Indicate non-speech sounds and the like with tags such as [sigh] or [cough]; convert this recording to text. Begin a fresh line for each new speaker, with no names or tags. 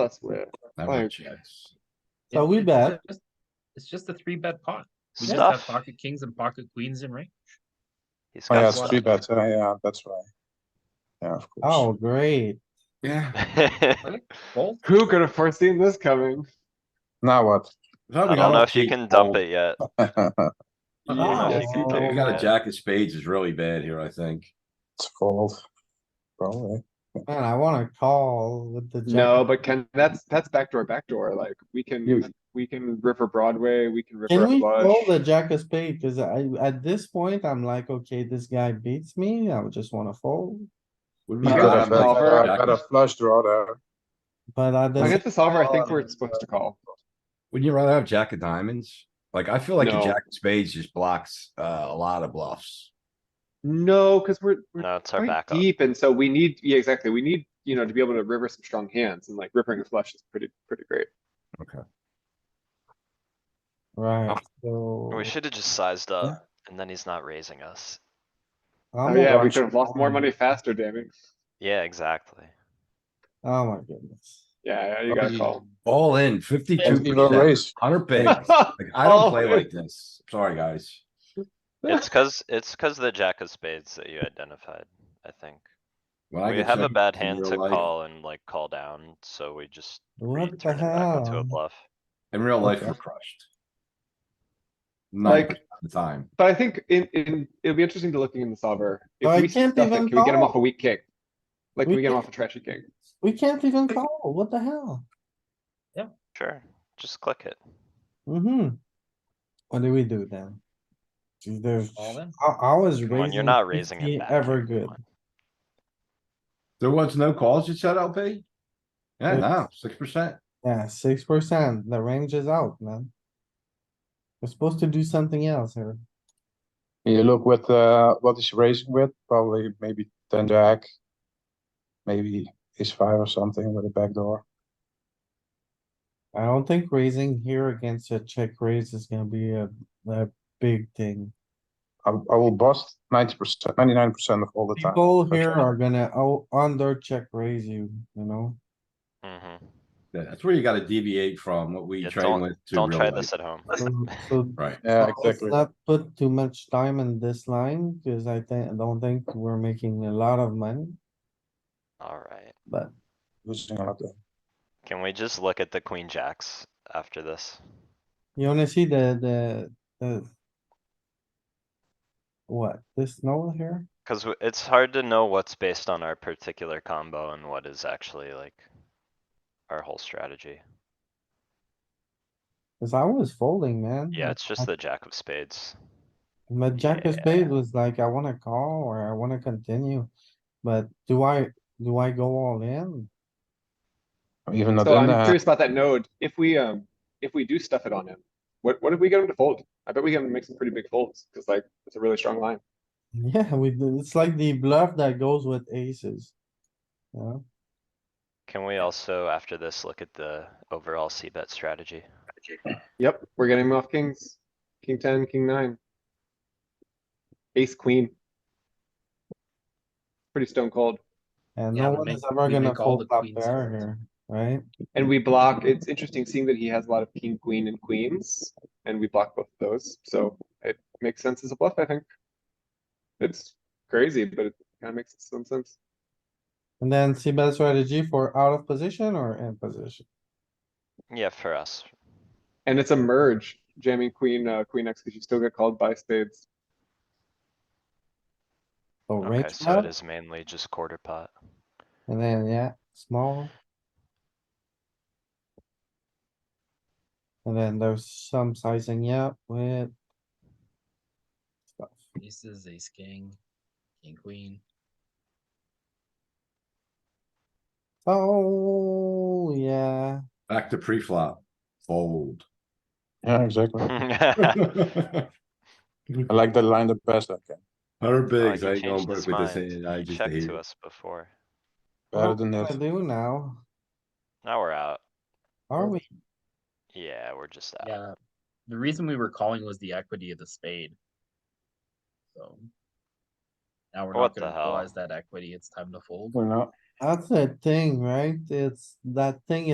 That's weird.
Never a
Like-
chance.
So
It-
we
it's
bet.
just- It's just a three bet pot. We just have
Stuff.
pocket kings and pocket queens in range.
He's
Oh,
got
yeah,
one.
it's
[laughs]
three bet, uh, yeah, that's right. Yeah, of course.
Oh, great.
Yeah,
Both.
Who could have foreseen this coming?
Now what? [laughs]
Now
I
we
don't
gotta
know if you
keep
can dump
old.
it yet.
Oh,
know,
Yeah,
you can
so
take
We got a
that.
jack of spades is really bad here, I think.
It's fold. Probably.
Man, I wanna call with the. jack.
No, but can, that's, that's backdoor, backdoor, like, we can,
You-
we can river Broadway, we Oh, can river
Can
a
we call the
flush.
jack of spade? Cause I, at this point, I'm like, okay, this guy beats me. I would just wanna fold.
Would
You
we
got
rather
a
I
have
bet-
solver.
jack
I
of-
bet a flush draw there.
But I
Against
just,
the solver, I think we're supposed to call.
Wouldn't you rather have jack of diamonds? Like, I feel like a
No.
jack of spades just blocks, uh, a lot of bluffs.
No, cuz we're, we're
No, it's our
quite
backup.
deep, and so we need, yeah, exactly, we need, you know, to be able to river some strong hands, and like ripping a flush is pretty, pretty great.
[laughs] right, so.
Oh. We should have just sized up and then he's not raising us.
Oh
I'm a
yeah, we
bunch
could have lost more
of-
money faster, damn it.
Yeah, exactly.
Oh my goodness.
Yeah, yeah, you gotta call.
All in, fifty-two
And even
percent,
raise.
hundred [laughs] bigs. Like, I
All
don't play
in.
like this. Sorry, guys.
It's cuz, it's cuz the jack of spades that you identified, I think.
When I
We
get
have a
checked
bad
in
hand
real
to
life-
call and like call down, so we just
What the
return it back into a
hell?
bluff.
In real life,
Okay.
we're crushed.
Like-
Like, the time.
[laughs] But I think in, in, it'll be interesting to looking in the solver.
Oh, I
If we stuff
can't
it, can
even
we get him off a
call.
weak kick? Like, can
We
we get him
can't-
off a trashy kick?
We can't even call. What the hell?
Sure, just click it.
Mm-hmm. What do we do then? Is there-
All in?
I, I was
Come on,
raising.
you're not raising
50
it back.
Ever
come
good.
on.
There was no calls you said, LP? Yeah,
Yes.
no, six percent.
Yeah, six percent. The range is out, man. We're supposed to do something else here.
You look with, uh, what is raising with, probably maybe ten jack. Maybe ace five or something with a backdoor.
I don't think raising here against a check raise is gonna be a, a big thing.
I, I will bust ninety percent, ninety-nine percent of all the time.
People
Okay.
here are gonna o- under check raise you, you know?
Mhm.
Yeah, that's where you gotta deviate from what we
Yeah,
train with. to
Don't
real
try
life.
this at home.
So- so
Right.
[laughs] Yeah,
let's
exactly.
Not put too much time in this line, cause I think, I don't think we're making a lot of money,
Alright,
but
Losing a lot there.
can we just look at the queen jacks after this?
you wanna see the, the, the. What, this note here?
Cuz it's hard to know what's based on our particular combo and what is actually like our whole strategy.
Cause I was folding, man.
Mm-hmm.
Yeah,
Like,
it's just the jack of spades.
My jack of
Yeah.
spade was like, I wanna call or I wanna continue, but do I, do I go all in? [laughs]
Even not
So
in
I'm
the,
curious about that node. If we, um, if we do stuff it on him, what, what if we get him to fold? I bet we can make some pretty big folds, cause like, it's a really strong line.
Yeah, we, do- it's like the bluff that goes with aces. Yeah,
Can we also, after this, look at the overall C bet strategy?
Yep, we're getting him off kings, king ten, king nine. Ace, queen. Pretty stone cold.
and
Yeah,
no
we
one
make-
is ever
we
gonna
make all
fold
the
flop
queens
pair
fold.
here, right?
And we block, it's interesting seeing that he has a lot of king, queen and queens, and we block both of those, so it makes sense as a bluff, I think. It's crazy, but it kinda makes some sense.
And then see bet strategy for out of position or in position?
Yeah, for us.
And it's a merge, jamming queen, uh, queen X, cause you still get called by spades.
So
Okay,
range
so it
up,
is mainly just quarter
[laughs]
pot.
and then, yeah, small. And then there's some sizing up with.
Aces, ace king, king queen.
Oh, yeah,
Back to pre-flop,
[laughs]
fold. [laughs]
yeah, exactly.
Oh, Alright,
Hundred
I like the line the best I can.
bigs,
he
I ain't going
changed
broke
his
with this,
mind.
hand, I
He
just
checked
hate
to
it.
us before.
Better
what
than
do I
that.
do now?
Now we're out.
Are we?
Yeah, we're just out.
Yeah, the reason we were calling was the equity of the spade. So. Now we're
What
not
the
gonna
hell?
realize that equity, it's time to fold.
We're not.
That's the thing, right? It's, that thing